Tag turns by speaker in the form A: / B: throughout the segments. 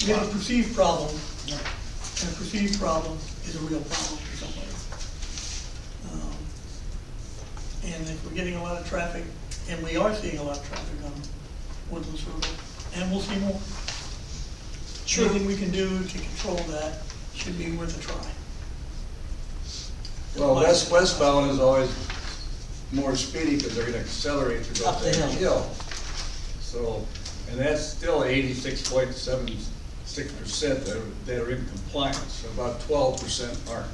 A: you have a perceived problem, and a perceived problem is a real problem for somebody. Um, And if we're getting a lot of traffic, and we are seeing a lot of traffic on Woodlands Road, and we'll see more.
B: Sure.
A: Anything we can do to control that should be worth a try.
C: Well, west, westbound is always more speedy because they're gonna accelerate to go up
B: Up the
C: that
B: hill.
C: hill. So, and that's still eighty-six point seven six percent that are, that are in compliance, about twelve percent aren't.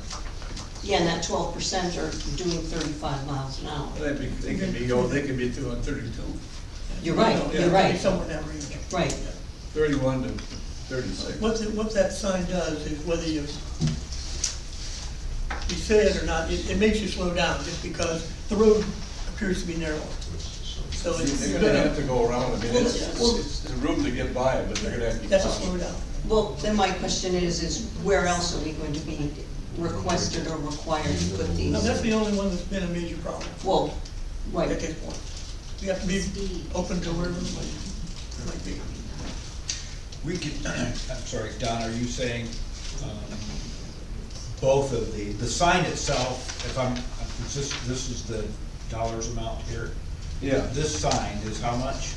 B: Yeah, and that twelve percent are doing thirty-five miles an hour.
C: They be, they can be, oh, they can be doing thirty-two,
B: You're right,
A: You know,
B: you're
A: yeah,
B: right.
A: Somewhere in that range.
B: Right.
A: Yeah.
C: thirty-one to thirty-six.
A: What, the- what that sign does is whether you, you say it or not, it, it makes you slow down just because the road appears to be narrow. So it's,
C: They're
A: you're
C: gonna have to
A: gonna,
C: go around, I mean, it's,
A: Well,
C: it's the room to get by, but they're gonna have to.
A: that's a slow down.
B: Well, then my question is, is where else are we going to be requested or required to put
A: Now, that's
B: these?
A: the only one that's been a major problem
B: Well,
A: at
B: right,
A: this point. You have to be open to wherever it might- might be.
D: We could, I'm sorry, Don, are you saying um, both of the, the sign itself, if I'm, is this, this is the dollars amount here?
C: Yeah.
D: This sign is how much?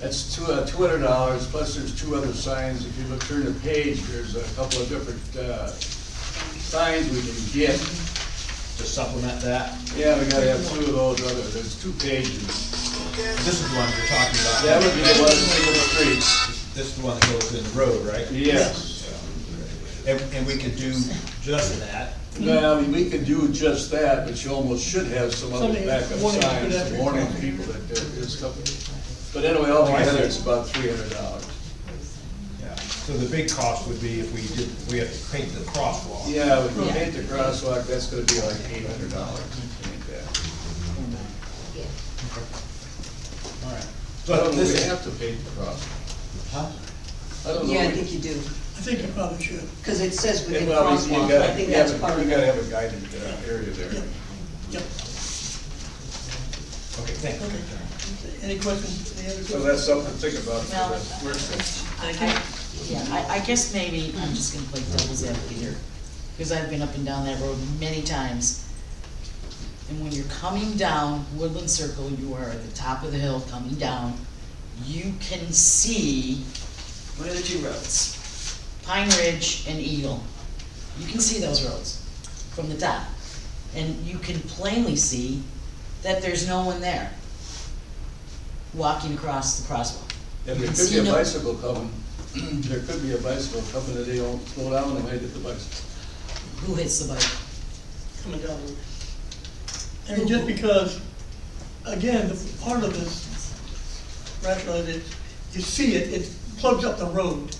C: That's two, uh, two hundred dollars, plus there's two other signs, if you look, turn the page, there's a couple of different, uh, signs we can get.
D: To supplement that?
C: Yeah, we gotta have two of those other, there's two pages.
D: This is the one you're talking about.
C: That would be the one for the street.
D: This- This is the one that goes in the road, right?
C: Yes.
D: And, and we could do just that.
C: Now, I mean, we can do just that, but you almost should have some other
A: Something-
C: backup
A: warning
C: signs,
A: pedestrian.
C: warning people that there is something. But anyway, altogether, it's about three hundred dollars.
D: Yeah. So the big cost would be if we did, we have to paint the crosswalk.
C: Yeah, when you paint the crosswalk, that's gonna be like eight hundred dollars, like that.
D: All right.
C: I
D: But
C: don't know, we
D: this,
C: have to paint the crosswalk.
D: huh?
C: I don't know.
B: yeah, I
C: we-
B: think you do,
A: I think you probably should.
B: because it says
C: Yeah,
B: within
C: well, I mean, you
B: crosswalk,
C: gotta-
B: I think
C: yeah,
B: that's
C: but
B: part of
C: We gotta
B: it.
C: have a guided uh, area there.
A: Yep, yep.
D: Okay, thank you.
A: Any questions, any other
C: So
A: questions?
C: that's something to think about for
E: Now-
C: the work
B: uh,
C: session.
A: Thank you.
E: I, yeah, I, I guess maybe I'm just gonna play devil's advocate here, because I've been up and down that road many times. And when you're coming down Woodland Circle, you are at the top of the hill coming down, you can see, what are the two roads? Pine Ridge and Eagle. You can see those roads from the top, and you can plainly see that there's no one there walking across the crosswalk.
C: And there could
E: See,
C: be a
E: no-
C: bicycle coming, there could be a bicycle coming and they don't slow down and they hit the bicycle.
E: Who hits the bike?
A: coming down the road. I mean, just because, again, the part of this rationale is, it- you see it, it plugs up the road.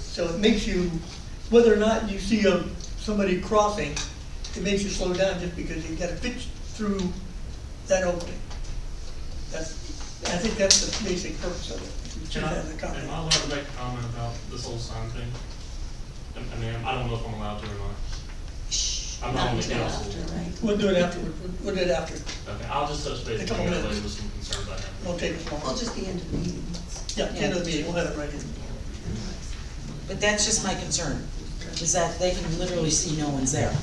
A: So it makes you, whether or not you see a, somebody crossing, it makes you slow down just because you gotta pitch through that opening. That's, I think that's the basic purpose of it.
F: Can I,
A: Just as a comment.
F: am I allowed to make a comment about this whole sign thing? I I mean, I don't know if I'm allowed to or not. I'm not on the council.
A: We'll do it after, we'll do it after,
F: Okay, I'll just touch base
A: A
F: with
A: couple
F: you later
A: minutes.
F: with some concerns I have.
A: we'll take it
B: Well,
A: long.
B: just the end of the meeting.
A: Yeah, end of the meeting, we'll have it right in.
E: But that's just my concern, is that they can literally see no one's there.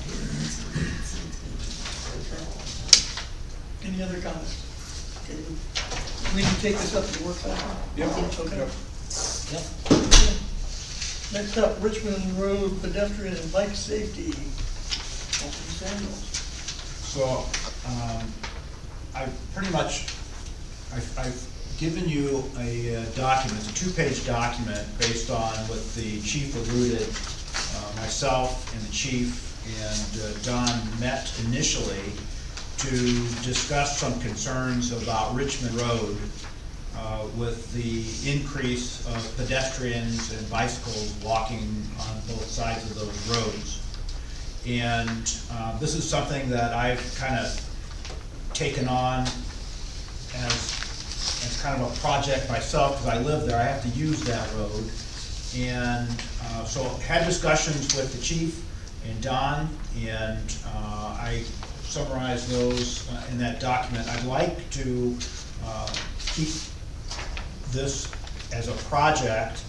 A: Any other comments? Okay, We can take this up at the work session?
C: Yep.
A: Okay.
C: Yep.
E: Yep.
A: Next up, Richmond Road pedestrian and bike safety. Alton Samuels.
D: So, um, I've pretty much, I've, I've given you a uh, document, a two-page document based on what the chief alluded, uh, myself and the chief and uh, Don met initially to discuss some concerns about Richmond Road, uh, with the increase of pedestrians and bicycles walking on both sides of those roads. And uh, this is something that I've kind of taken on as, as kind of a project myself, because I live there, I have to use that road. And uh, so had discussions with the chief and Don, and uh, I summarized those uh, in that document. I'd like to uh, keep this as a project